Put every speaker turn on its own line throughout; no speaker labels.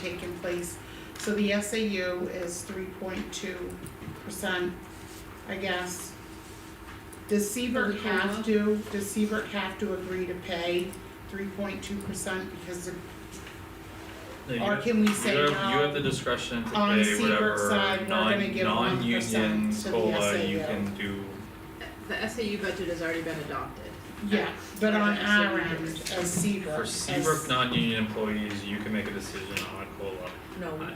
taken place. So the SAU is three point two percent, I guess. Does Seabrook
For the
have
COLA?
to, does Seabrook have to agree to pay three point two percent because of,
No, you
or
have-
can we
you
say
have-
no?
You have the discretion to
On
pay
Seabrook's side,
whatever
we're gonna
non,
give 1%
non-union
to the
COLA you
SAU.
can do,
The SAU budget has already been adopted.
Yeah, but on
Yeah,
our
so we-
end, as Seabrook,
for
as-
Seabrook non-union employees, you can make a decision on COLA.
Oh,
No,
Uh,
we.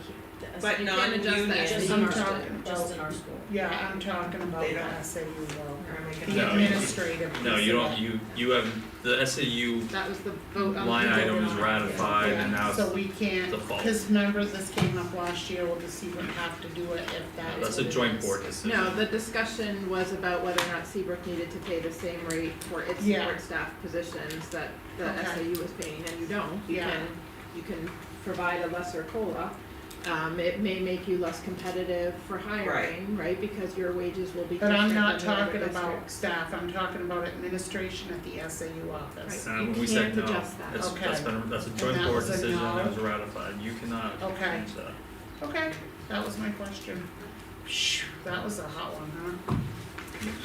But
You
not
can adjust
union.
the
Just
SAU
in our,
budget.
talking
just in our school.
Yeah, I'm talking about
They
the
don't-
SAU though,
Or am I gonna-
the
No, you-
administrative
No,
piece
you
of
don't,
it.
you, you have, the SAU
That was the
Oh,
vote on.
line
the-
item is ratified
Yeah,
and now it's,
So we can't,
default.
cause remember this came up last year, we'll just see what have to do it if that is
that's a
what it
joint
is.
board decision.
No, the discussion was about whether or not Seabrook needed to pay the same rate for its
Yeah.
support staff positions that the
Okay.
SAU was paying, and you don't. You
Yeah.
can, you can provide a lesser COLA. Um, it may make you less competitive for hiring, right, because your wages will be
But
different
I'm not
than the other
talking about
districts.
staff, I'm talking about administration at the SAU office.
Right.
And
You
Uh, when we said
can't
no,
adjust that.
that's, that's
Okay.
been, that's a
that
joint board
was a
decision,
no.
that was ratified, you cannot change that.
Okay. Okay, that was my question. Phew, That was a hot one,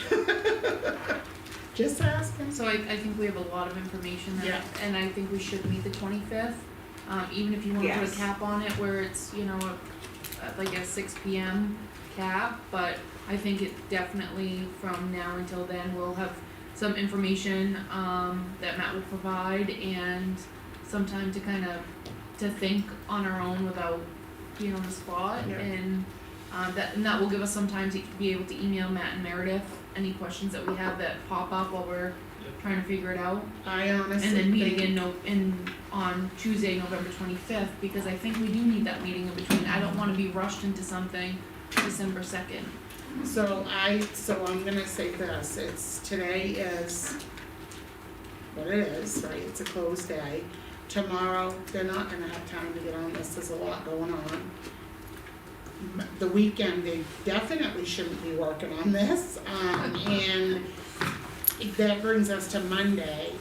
huh? Just asking.
So I, I think we have a lot of information
Yeah.
that, and I think we should meet the twenty-fifth. Um, even if you wanna put
Yes.
a cap on it where it's, you know, a- a- like a six P M cap, but I think it definitely from now until then, we'll have some information, um, that Matt will provide and some time to kind of, to think on our own without being on the spot
Yeah.
and, um, that, and that will give us some time to be able to email Matt and Meredith any questions that we have that pop up while we're trying to figure it out.
I honestly
And then meet
think-
again no, in, on Tuesday, November twenty-fifth, because I think we do need that meeting in between, I don't wanna be rushed into something December second.
So I, so I'm gonna say this, it's, today is what it is, right, it's a closed day. Tomorrow, they're not gonna have time to get on this, there's a lot going on. M- The weekend, they definitely shouldn't be working on this, um, and that brings us to Monday,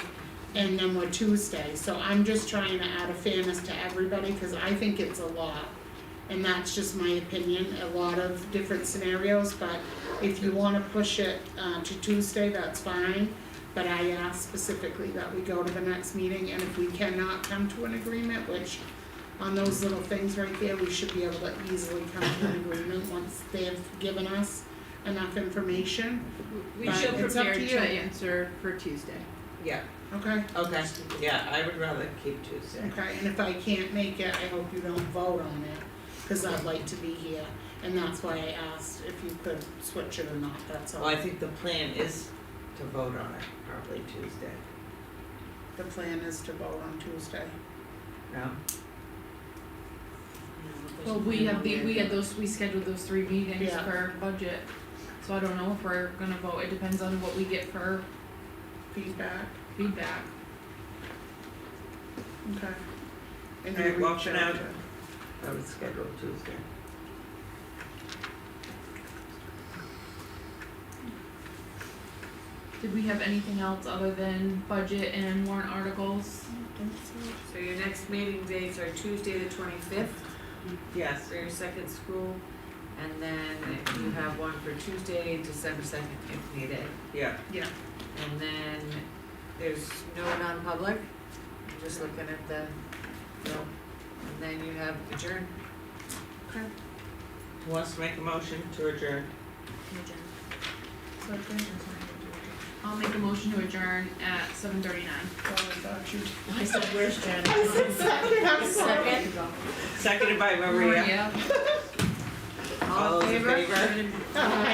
and then we're Tuesday, so I'm just trying to add a fairness to everybody, cause I think it's a lot. And that's just my opinion, a lot of different scenarios, but if you wanna push it uh to Tuesday, that's fine. But I ask specifically that we go to the next meeting and if we cannot come to an agreement, which on those little things right there, we should be able to easily come to an agreement once they've given us enough information,
We
But
should
it's up to
prepare
you.
to answer for Tuesday.
Yeah,
okay?
okay, yeah, I would rather keep Tuesday.
Okay, and if I can't make it, I hope you don't vote on it, cause I'd like to be here. And that's why I asked if you could switch it or not, that's
Well,
all,
I think the plan is to vote on it probably Tuesday,
the plan is to vote on Tuesday.
no?
Well, we have the, we had those, we scheduled those three meetings
Yeah.
for budget, so I don't know if we're gonna vote, it depends on what we get for
Feedback,
feedback.
okay. And
Alright,
you
well,
reach
for
out
now-
to-
I would schedule Tuesday.
Did we have anything else other than budget and warrant articles?
So your next meeting dates are Tuesday the twenty-fifth
Yes,
for your second school, and then you have one for Tuesday, December second if needed.
yeah,
And then there's no non-public, I'm just looking at the, no, and then you have adjourn.
who wants to make a motion to adjourn?
I'll make a motion to adjourn at seven thirty-nine.
Oh, I thought you.
I said, where's Janet?
I said second, I'm sorry.
Seconded by Maria,
Maria?
all
All
those
in
in
favor?
favor?
Aye.